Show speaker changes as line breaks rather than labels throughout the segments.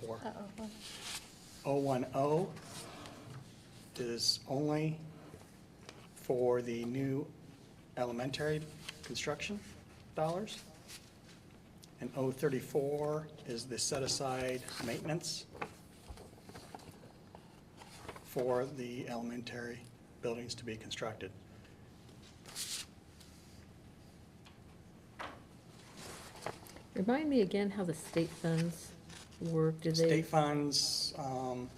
004.
Uh-oh.
010 is only for the new elementary construction dollars. And 034 is the set-aside maintenance for the elementary buildings to be constructed.
Remind me again how the state funds work, do they?
State funds um,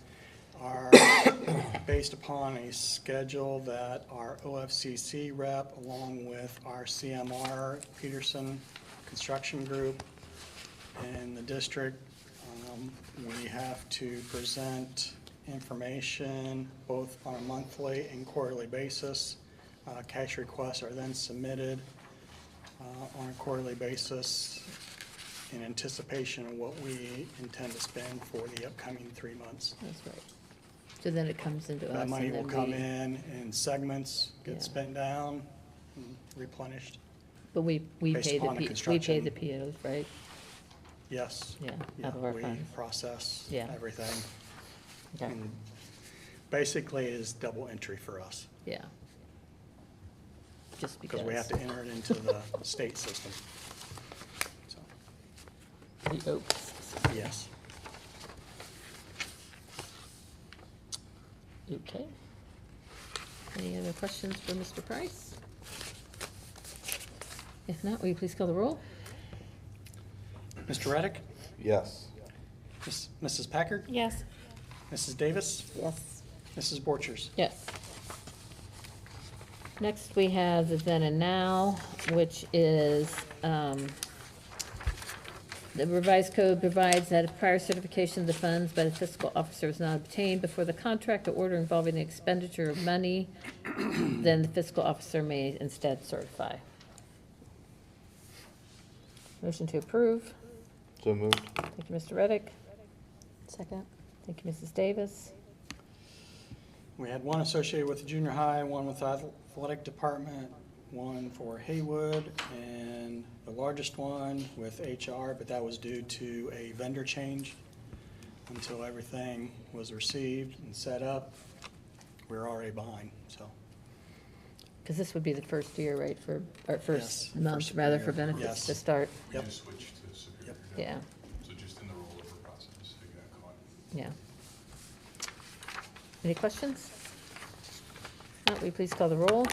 are based upon a schedule that our OFCC rep, along with our CMR Peterson Construction Group and the district, um, we have to present information both on a monthly and quarterly basis. Uh, Cash requests are then submitted uh, on a quarterly basis in anticipation of what we intend to spend for the upcoming three months.
That's right. So then it comes into us.
That money
and
will
then
come
we-
in in segments,
Yeah.
get spent down, and replenished.
But we, we
based
pay the,
upon the
P- we pay the
construction.
POs, right?
Yes.
Yeah,
Yeah,
out of our
we
funds.
process
Yeah.
everything.
Okay,
and Basically, it is double entry for us,
yeah. Just because.
because we have to enter it into the state system. So,
The Oaks,
Yes.
okay. Any other questions for Mr. Price? If not, will you please call the roll?
Mr. Reddick?
Yes.
Miss- Mrs. Packard?
Yes.
Mrs. Davis?
Yes.
Mrs. Borchers?
Yes. Next, we have the then and now, which is, um, the revised code provides that if prior certification of the funds by the fiscal officer is not obtained before the contract or order involving the expenditure of money, then the fiscal officer may instead certify. Motion to approve.
So moved.
Thank you, Mr. Reddick.
Second.
Thank you, Mrs. Davis.
We had one associated with the junior high, one with athletic department, one for Haywood, and the largest one with HR, but that was due to a vendor change. Until everything was received and set up, we were already behind, so.
Because this would be the first year, right, for, or
Yes,
first
for
month, rather, for
Superior,
benefits to
yes.
start?
Yep.
You switch to Superior.
Yep.
Yeah,
So just in the rollover process, you got caught.
yeah. Any questions? Matt, will you please call the roll?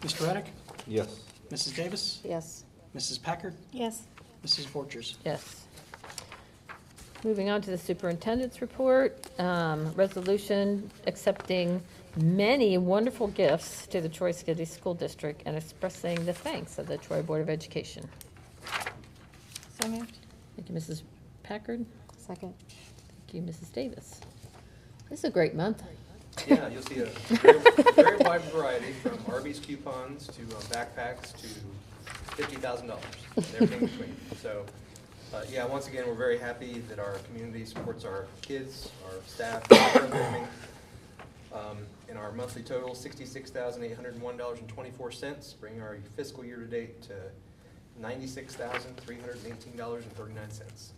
Mr. Reddick,
Yes.
Mrs. Davis,
Yes.
Mrs. Packard,
Yes.
Mrs. Borchers.
Yes. Moving on to the superintendent's report, um, resolution accepting many wonderful gifts to the Troy City School District and expressing the thanks of the Troy Board of Education.
So moved.
Thank you, Mrs. Packard.
Second.
Thank you, Mrs. Davis. This is a great month.
Yeah, you'll see a very- very wide variety, from Arby's coupons to uh, backpacks to fifty thousand dollars, everything in between. So, uh, yeah, once again, we're very happy that our community supports our kids, our staff, our programming. Um, And our monthly total, sixty-six thousand eight hundred and one dollars and twenty-four cents, bringing our fiscal year-to-date to ninety-six thousand three hundred and eighteen dollars and thirty-nine cents.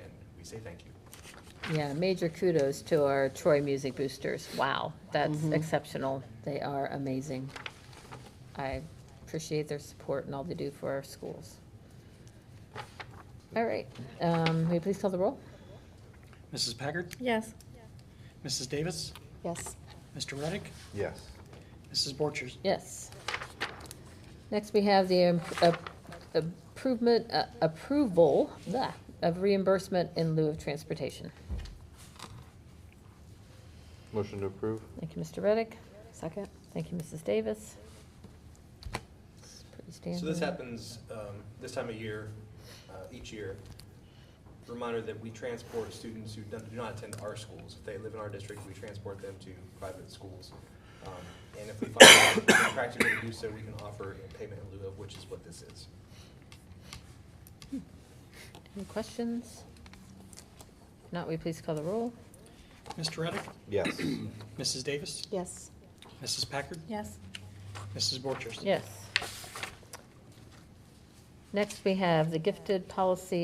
And we say thank you.
Yeah, major kudos to our Troy Music Boosters. Wow, that's
Mm-hmm.
exceptional. They are amazing. I appreciate their support and all they do for our schools. All right, um, will you please call the roll?
Mrs. Packard,
Yes.
Mrs. Davis,
Yes.
Mr. Reddick,
Yes.
Mrs. Borchers.
Yes. Next, we have the im- ap- improvement, uh, approval blah, of reimbursement in lieu of transportation.
Motion to approve?
Thank you, Mr. Reddick.
Second.
Thank you, Mrs. Davis. It's pretty
So this
standard.
happens um, this time of year, uh, each year. Reminder that we transport students who do do not attend our schools. If they live in our district, we transport them to private schools. Um, And if we find it practical to do so, we can offer a payment in lieu of, which is what this is.
Any questions? If not, will you please call the roll?
Mr. Reddick,
Yes.
Mrs. Davis,
Yes.
Mrs. Packard,
Yes.
Mrs. Borchers.
Yes. Next, we have the gifted policy